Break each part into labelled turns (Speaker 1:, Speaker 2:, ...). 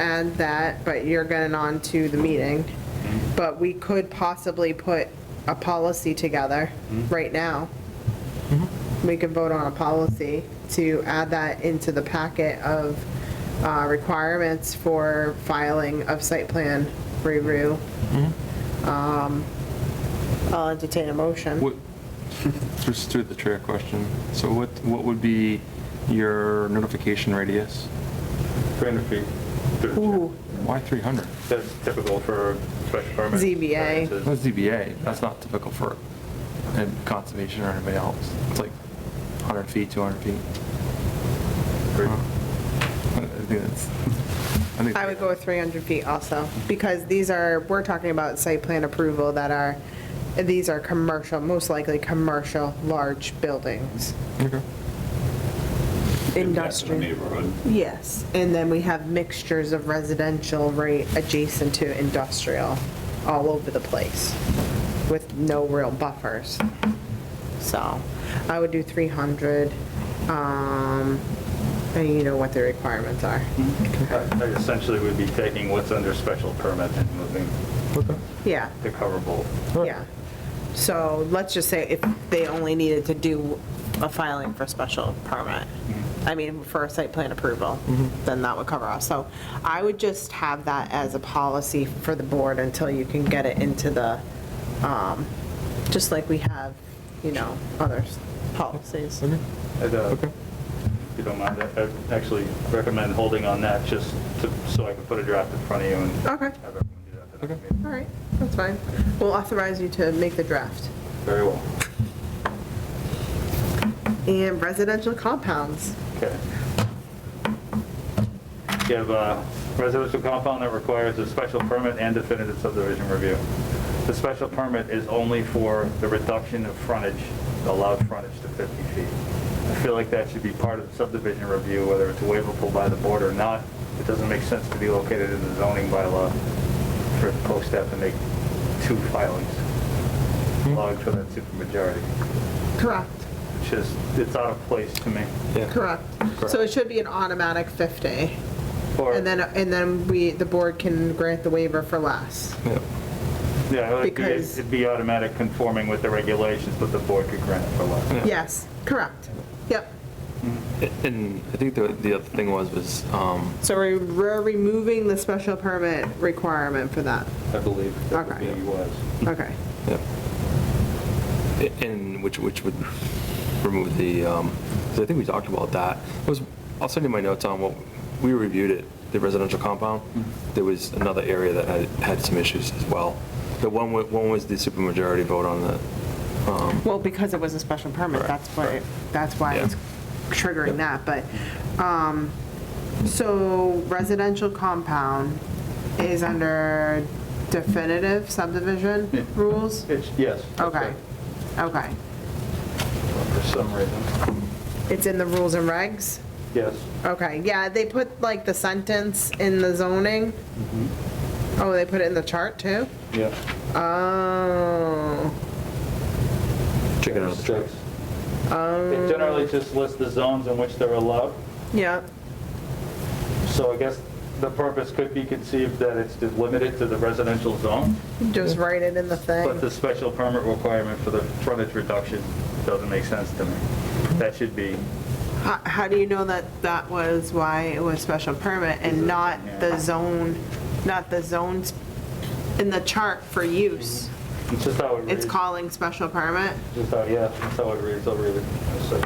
Speaker 1: add that, but you're getting on to the meeting. But we could possibly put a policy together right now. We could vote on a policy to add that into the packet of uh, requirements for filing of site plan review. Um, I'll entertain a motion.
Speaker 2: What, just through the chair question, so what, what would be your notification radius?
Speaker 3: 300 feet. Through the chair.
Speaker 1: Ooh,
Speaker 2: Why 300?
Speaker 3: That's typical for special permits.
Speaker 1: ZBA.
Speaker 2: That's ZBA, that's not typical for uh, conservation or anybody else. It's like 100 feet, 200 feet. Uh, I think that's- I think-
Speaker 1: I would go with 300 feet also, because these are, we're talking about site plan approval that are, these are commercial, most likely commercial, large buildings,
Speaker 2: Okay.
Speaker 4: Impact on the
Speaker 1: industrial.
Speaker 4: Neighborhood.
Speaker 1: Yes, and then we have mixtures of residential right adjacent to industrial all over the place with no real buffers. So I would do 300, um, and you know what the requirements are.
Speaker 4: Hmm.
Speaker 3: I- I Essentially, would be taking what's under special permit and moving
Speaker 1: Yeah.
Speaker 3: the coverable.
Speaker 1: Yeah, so let's just say if they only needed to do a filing for special permit, I mean, for a site plan approval, then that would cover us. So I would just have that as a policy for the board until you can get it into the, um, just like we have, you know, other policies.
Speaker 2: Okay.
Speaker 3: I'd, uh,
Speaker 2: Okay.
Speaker 3: If you don't mind, I- I'd actually recommend holding on that just to- so I can put a draft in front of you and.
Speaker 1: Okay.
Speaker 3: have everyone do that at the next
Speaker 2: Okay.
Speaker 3: meeting.
Speaker 1: All right, that's fine. We'll authorize you to make the draft.
Speaker 3: Very well.
Speaker 1: And residential compounds.
Speaker 3: Okay. You have a residential compound that requires a special permit and definitive subdivision review. The special permit is only for the reduction of frontage, the allowed frontage to 50 feet. I feel like that should be part of the subdivision review, whether it's waivable by the board or not. It doesn't make sense to be located in the zoning bylaw for a post to have to make two filings, allowing for that supermajority.
Speaker 1: Correct.
Speaker 3: It's just, it's out of place to me.
Speaker 1: Correct. So it should be an automatic 50.
Speaker 3: Or-
Speaker 1: And then, and then we, the board can grant the waiver for less.
Speaker 2: Yeah.
Speaker 3: Yeah, it'd be-
Speaker 1: Because-
Speaker 3: it'd be automatic conforming with the regulations, but the board could grant it for less.
Speaker 1: Yes, correct. Yep.
Speaker 2: And I think the, the other thing was, was, um,
Speaker 1: So we're we're removing the special permit requirement for that.
Speaker 3: I believe that would
Speaker 1: Okay.
Speaker 3: be was.
Speaker 1: Okay.
Speaker 2: yeah. A- And which, which would remove the, um, 'cause I think we talked about that. Was, I'll send you my notes on what, we reviewed it, the residential compound. There was another area that had, had some issues as well. The one, wa- one was the supermajority vote on the, um,
Speaker 1: Well, because it was a special permit,
Speaker 2: Correct,
Speaker 1: that's what, it- that's why it's triggering that, but, um, so residential compound is under definitive subdivision rules?
Speaker 3: It's, yes. that's
Speaker 1: Okay, okay.
Speaker 3: it. For some reason.
Speaker 1: It's in the rules and regs?
Speaker 3: Yes.
Speaker 1: Okay, yeah, they put like the sentence in the zoning.
Speaker 3: Mm-hmm.
Speaker 1: Oh, they put it in the chart too?
Speaker 3: Yeah.
Speaker 1: Oh,
Speaker 2: chicken out of the truck.
Speaker 1: Um,
Speaker 3: It generally just lists the zones in which they're allowed,
Speaker 1: yeah,
Speaker 3: so I guess the purpose could be conceived that it's just limited to the residential zone,
Speaker 1: just write it in the
Speaker 3: but
Speaker 1: thing.
Speaker 3: the special permit requirement for the frontage reduction doesn't make sense to me. That should be,
Speaker 1: How, how do you know that that was why it was special permit and not the zone, not the zones in the chart for use?
Speaker 3: it's just how it reads.
Speaker 1: It's calling special permit?
Speaker 3: Just how, yeah, that's how it reads, I'll read it. So-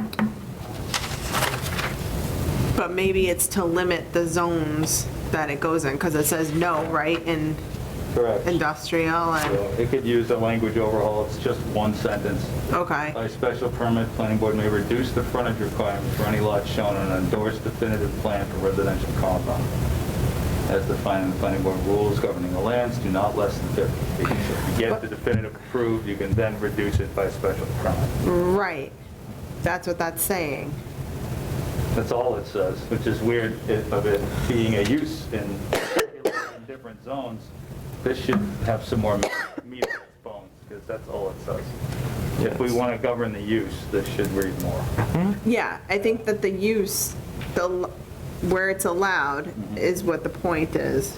Speaker 1: But maybe it's to limit the zones that it goes in, because it says no, right, in
Speaker 3: Correct.
Speaker 1: industrial and, uh,
Speaker 3: So It could use a language overhaul, it's just one sentence.
Speaker 1: okay.
Speaker 3: By special permit, planning board may reduce the frontage requirement for any lot shown on an endorsed definitive plan for residential compound. As defined in the planning board rules governing the lands, do not less than 50 feet. So If you get the definitive approved, you can then reduce it by special permit.
Speaker 1: Right, that's what that's saying.
Speaker 3: That's all it says, which is weird it- of it being a use in different zones. This should have some more meat meat on its bones, because that's all it says. If we want to govern
Speaker 2: Mm-hmm.
Speaker 3: the use, this should read more.
Speaker 1: Yeah, I think that the use, the, l- where it's allowed is what the point is.